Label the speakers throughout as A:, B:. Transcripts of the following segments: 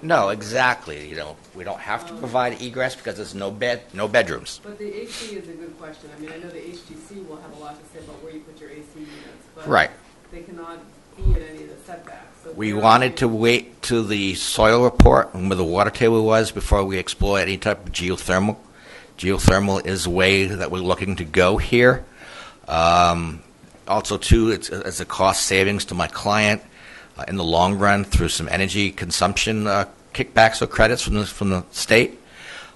A: No, exactly. You know, we don't have to provide egress because there's no bed, no bedrooms.
B: But the AC is a good question. I mean, I know the HGC will have a lot to say about where you put your AC units, but
A: Right.
B: they cannot be in any of the setbacks. So
A: We
B: they're-
A: wanted to wait to the soil report and where the water table was before we explore any type of geothermal. Geothermal is the way that we're looking to go here. Um, also, too, it's, it's a cost savings to my client uh, in the long run through some energy consumption uh, kickbacks or credits from the, from the state.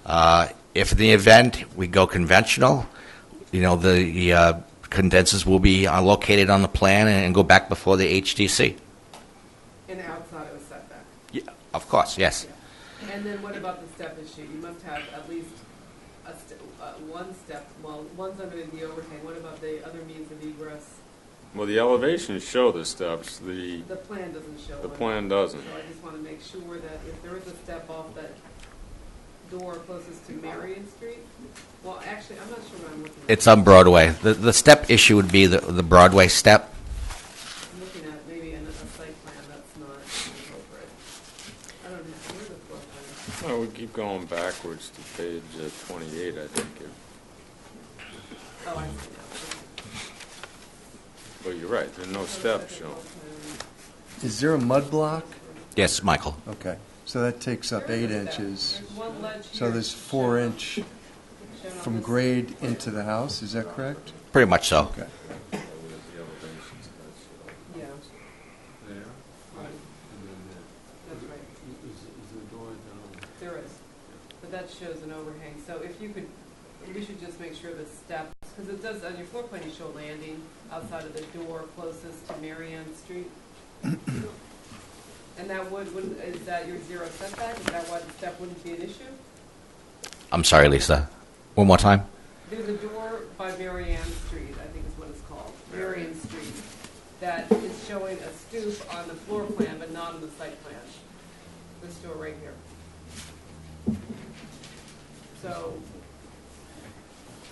A: Uh, If in the event we go conventional, you know, the- the uh, condensers will be uh, located on the plan and and go back before the HDC.
B: And outside of a setback.
A: Yeah, Of course, yes.
B: And then what about the step issue? You must have at least a st- uh, one step, well, one's under the overhang. What about the other means of egress?
C: Well, the elevations show the steps, the,
B: The plan doesn't show
C: the
B: one.
C: plan doesn't.
B: So I just want to make sure that if there is a step off that door closest to Marion Street, well, actually, I'm not sure what I'm looking at.
A: It's on Broadway. The, the step issue would be the, the Broadway step.
B: I'm looking at maybe an- a site plan that's not appropriate. I don't know, where's the floor plan?
C: Oh, we keep going backwards to page uh, 28, I think. if-
B: Oh, I see now.
C: Well, you're right, there are no steps shown.
D: Is there a mud block?
A: Yes, Michael.
D: Okay, so that takes up eight inches.
B: There's one ledge
D: So
B: here
D: there's four
B: shown-
D: inch
B: shown on
D: from
B: this-
D: grade into the house, is that correct?
A: Pretty much so.
D: Okay.
B: Yeah,
E: There, and
B: right,
E: then there.
B: that's right.
E: Is, is the door down?
B: There is, but that shows an overhang, so if you could, we should just make sure the steps, because it does, on your floor plan, you show a landing outside of the door closest to Marianne Street. And that would, wouldn't, is that your zero setback, is that why the step wouldn't be an issue?
A: I'm sorry, Lisa. One more time.
B: There's a door by Marianne Street, I think is what it's called, Marianne Street, that is showing a stoop on the floor plan, but not on the site plan. This door right here. So,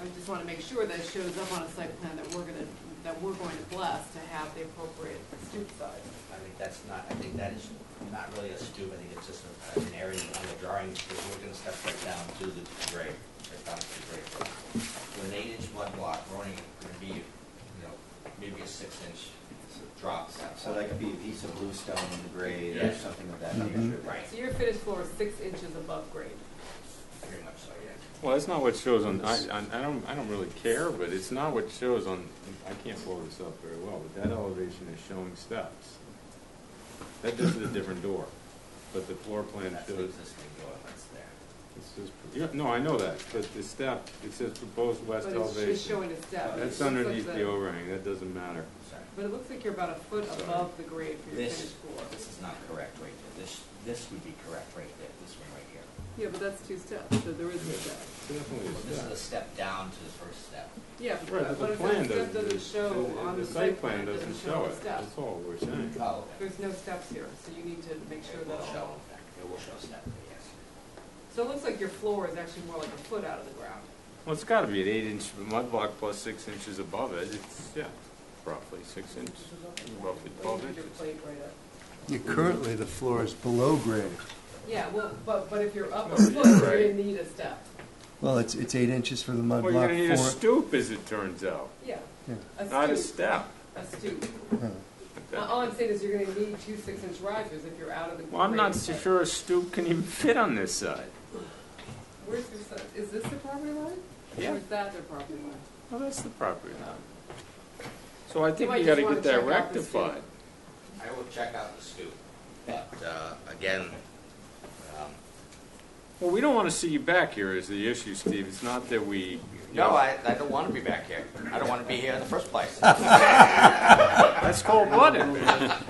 B: I just want to make sure that it shows up on a site plan that we're gonna, that we're going to bless to have the appropriate stoop size.
A: I think that's not, I think that is not really a stoop. I think it's just an area on the drawings. We're going to step right down to the grade, right down to the grade. With an eight-inch mud block, we're only going to be, you know, maybe a six-inch drop.
F: So that could be a piece of bluestone in the grade or
A: Yes.
F: something of that
D: Mhm.
F: nature.
A: Right,
B: So your finished floor is six inches above grade.
A: pretty much so, yeah.
C: Well, that's not what shows on, I, I- I don't, I don't really care, but it's not what shows on, I can't blow this up very well, but that elevation is showing steps. That is a different door, but the floor plan
A: That's the
C: shows,
A: existing door that's there.
C: it's just, yeah, no, I know that, but the step, it says proposed west
B: But it's just
C: elevation.
B: showing a step. It
C: That's
B: just looks
C: underneath
B: like-
C: the overhang, that doesn't matter.
A: Sorry.
B: But it looks like you're about a foot
C: Sorry.
B: above the grade for your
F: This,
B: finished floor.
F: this is not correct right there. This, this would be correct right there, this one right here.
B: Yeah, but that's two steps, so there is a step.
C: Definitely a
A: This is
C: step.
A: a step down to the first step.
B: Yeah,
C: Right,
B: but
C: but the
B: if that
C: plan
B: step
C: doesn't.
B: doesn't show on the site plan, it doesn't show
C: it.
B: the step.
C: That's all we're saying.
A: Oh,
B: There's no steps here, so you need to make sure
A: It
B: that
A: will show,
B: all.
A: it will show step, yes.
B: So it looks like your floor is actually more like a foot out of the ground.
C: Well, it's gotta be an eight inch mud block plus six inches above it, it's, yeah, roughly six inches, roughly
B: Or
C: twelve
B: you could
C: inches.
B: just plate right up.
D: Yeah, Currently, the floor is below grade.
B: Yeah, well, but, but if you're up a
C: Well,
B: foot,
C: you're
B: you're gonna
C: right.
B: need a step.
D: Well, it's, it's eight inches for the mud
C: Well, you're
D: block.
C: gonna need a
D: four-
C: stoop, as it turns out,
B: Yeah,
D: yeah,
C: not
B: a
C: a
B: stoop,
C: step.
B: a stoop.
D: yeah.
B: Uh, All I'm saying is you're gonna need two six-inch risers if you're out of the.
C: Well, I'm not
B: grade.
C: so sure a stoop can even fit on this side.
B: Where's your, se- is this the property line?
C: Yeah.
B: Or is that their property line?
C: Well, that's the property line. So I think
B: might
C: you
B: just
C: gotta
B: wanna
C: get that
B: check out the stoop.
C: rectified.
A: I will check out the stoop, but, uh, again, um,
C: Well, we don't wanna see you back here is the issue, Steve, it's not that we. you
A: no,
C: know,
A: I, I don't want to be back here. I don't want to be here in the first place.
C: That's cold blooded, man.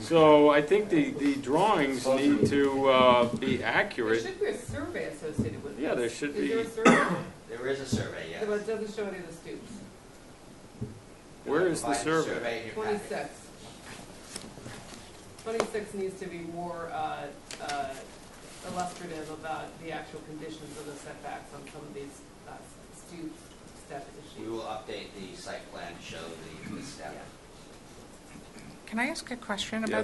C: So I think the, the drawings need to uh, be
B: There
C: accurate.
B: should be a survey associated with this.
C: Yeah, there should
B: Is there a
C: be.
B: survey?
A: There is a survey, yes.
B: But it doesn't show any of the stoops.
C: Where is the
A: Provide
C: survey?
A: in your packet.
B: Twenty-six. Twenty-six needs to be more uh, uh, illustrative about the actual conditions of the setbacks on some of these uh, stoop step
A: We
B: issues.
A: will update the site plan to show the, the step.
G: Can I ask a question
C: Yes.
G: about